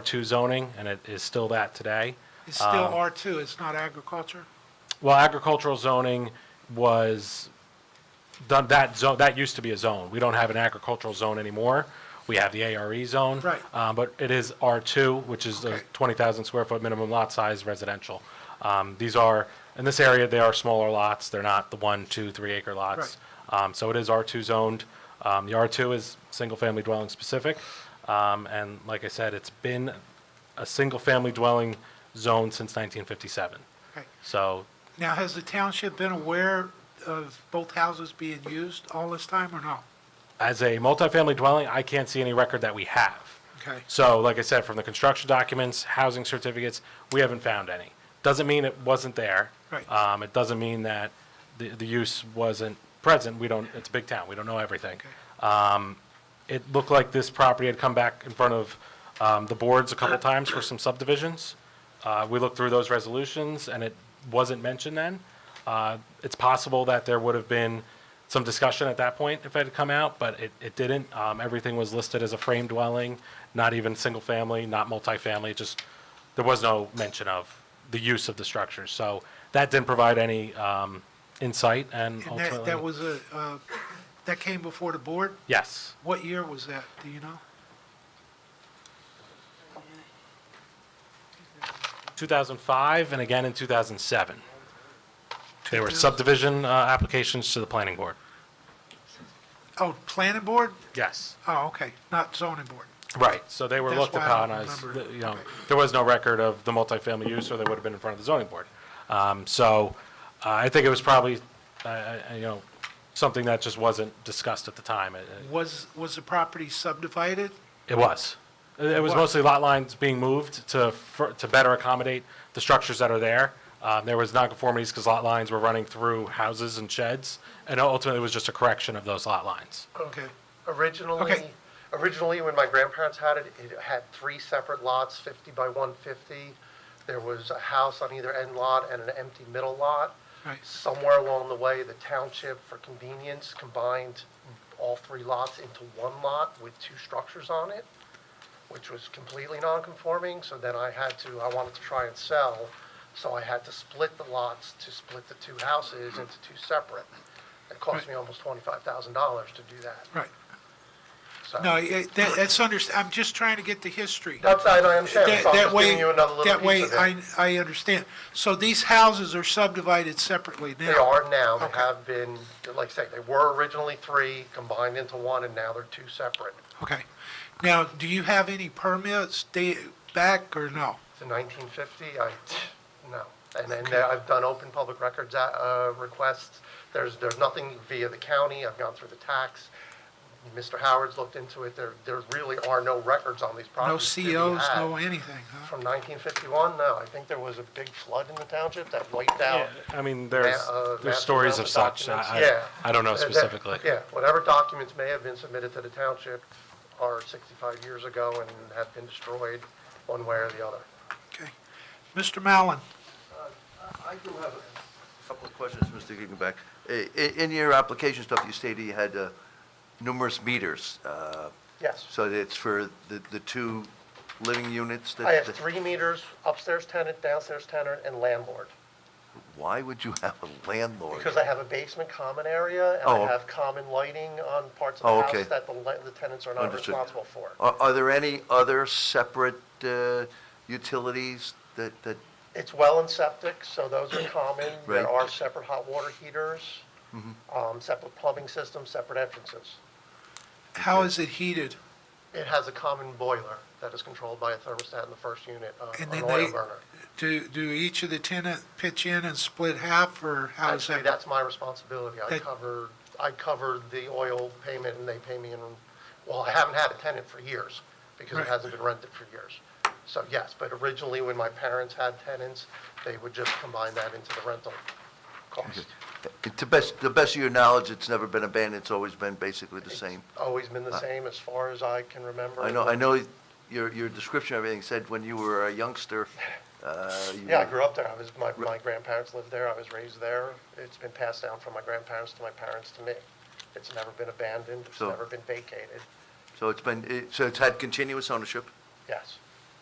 R2 zoning, and it is still that today. It's still R2, it's not agriculture? Well, agricultural zoning was, done. that zone, that used to be a zone. We don't have an agricultural zone anymore. We have the ARE zone. Right. Uh, But it is R2, which is a Okay. 20,000 square foot minimum lot size residential. Um, These are, in this area, they are smaller lots. They're not the one, two, three acre lots. Um, So it is R2 zoned. Um, The R2 is single-family dwelling specific. Um, And like I said, it's been a single-family dwelling zone since 1957. Okay. So Now, has the township been aware of both houses being used all this time or not? as a multifamily dwelling, I can't see any record that we have. Okay. So, like I said, from the construction documents, housing certificates, we haven't found any. Doesn't mean it wasn't there. Right. Um, it doesn't mean that the, the use wasn't present. We don't, it's a big town. We don't know everything. Um, it looked like this property had come back in front of, um, the boards a couple times for some subdivisions. Uh, we looked through those resolutions and it wasn't mentioned then. Uh, it's possible that there would have been some discussion at that point if it had come out, but it, it didn't. Um, everything was listed as a frame dwelling, not even single family, not multifamily, just, there was no mention of the use of the structure. So that didn't provide any, um, insight and And that, that ultimately, was a, uh, that came before the board? yes. What year was that, do you know? 2005 and again in 2007. They were subdivision uh, applications to the planning board. Oh, planning board? Yes. Oh, okay, not zoning board. Right, so they were That's looked why I upon don't as, remember. the- you know, Okay. there was no record of the multifamily use, or they would have been in front of the zoning board. Um, So uh, I think it was probably, uh, uh, you know, something that just wasn't discussed at the time. Uh, It- it- Was, was the property subdivided? It was. It- It was was. mostly lot lines being moved to, fir- to better accommodate the structures that are there. Um, There was nonconformities because lot lines were running through houses and sheds, and ultimately it was just a correction of those lot lines. Oh. Okay. Originally, Okay. originally, when my grandparents had it, it had three separate lots, 50 by 150. There was a house on either end lot and an empty middle lot. Right. Somewhere along the way, the township, for convenience, combined all three lots into one lot with two structures on it, which was completely non-conforming, so then I had to, I wanted to try and sell, so I had to split the lots to split the two houses into two separate. It cost me almost $25,000 to do that. Right. So- No, it- that- that's under, I'm just trying to get the history. That's, I I understand, That so I'm that just way, giving you another little that way, piece of it. I, I understand. So these houses are subdivided separately now? They are now, they Okay. have been, like I say, they were originally three, combined into one, and now they're two separate. Okay. Now, do you have any permits da- back or no? It's in 1950, I, no. And then there- I've done open public records uh, uh, requests, there's, there's nothing via the county, I've gone through the tax. Mr. Howard's looked into it, there, there really are no records on these No properties. to be COs, no had. anything, huh? From 1951, no, I think there was a big flood in the township that wiped out I mean, there's, Ma- uh, there's master stories of development such. I- documents. I, Yeah. I don't know Uh, that- specifically. Yeah, whatever documents may have been submitted to the township are 65 years ago and have been destroyed one way or the other. Okay. Mr. Mallon, I do have a couple of questions, Mr. Giegenbeck. I- i- In your application stuff, you stated you had uh, numerous meters, uh, Yes. so that's for the the two living units that... I have three meters, upstairs tenant, downstairs tenant, and landlord. Why would you have a landlord? Because I have a basement common area and I Oh. have common lighting on parts of Oh, the okay. house that the la- the tenants are not Understood. Oh. responsible for. Are are there any other separate uh, utilities that, that? It's well and septic, so those are common. Right. Mm-hmm. There are separate hot water heaters, um, separate plumbing systems, separate entrances. how is it heated? It has a common boiler that is controlled by a thermostat in the first unit, uh, And an then oil they- burner. Do, do each of the tenant pitch in and split half, or how does Actually, that? that's my responsibility. I That- cover, I cover the oil payment and they pay me in, well, I haven't had a tenant for years because it Right. hasn't been rented for years. So yes, but originally when my parents had tenants, they would just combine that into the rental cost. To best, the best of your knowledge, it's never been abandoned, it's always been basically the same? Always been the same as far as I can remember. I know, I know your, your description of everything said when you were a youngster, uh, you Yeah, I were- grew up there. I was, my, my grandparents lived there. I was raised there. It's been passed down from my grandparents to my parents to me. It's never been abandoned. It's So- never been vacated. So it's been, it- so it's had continuous ownership? Yes.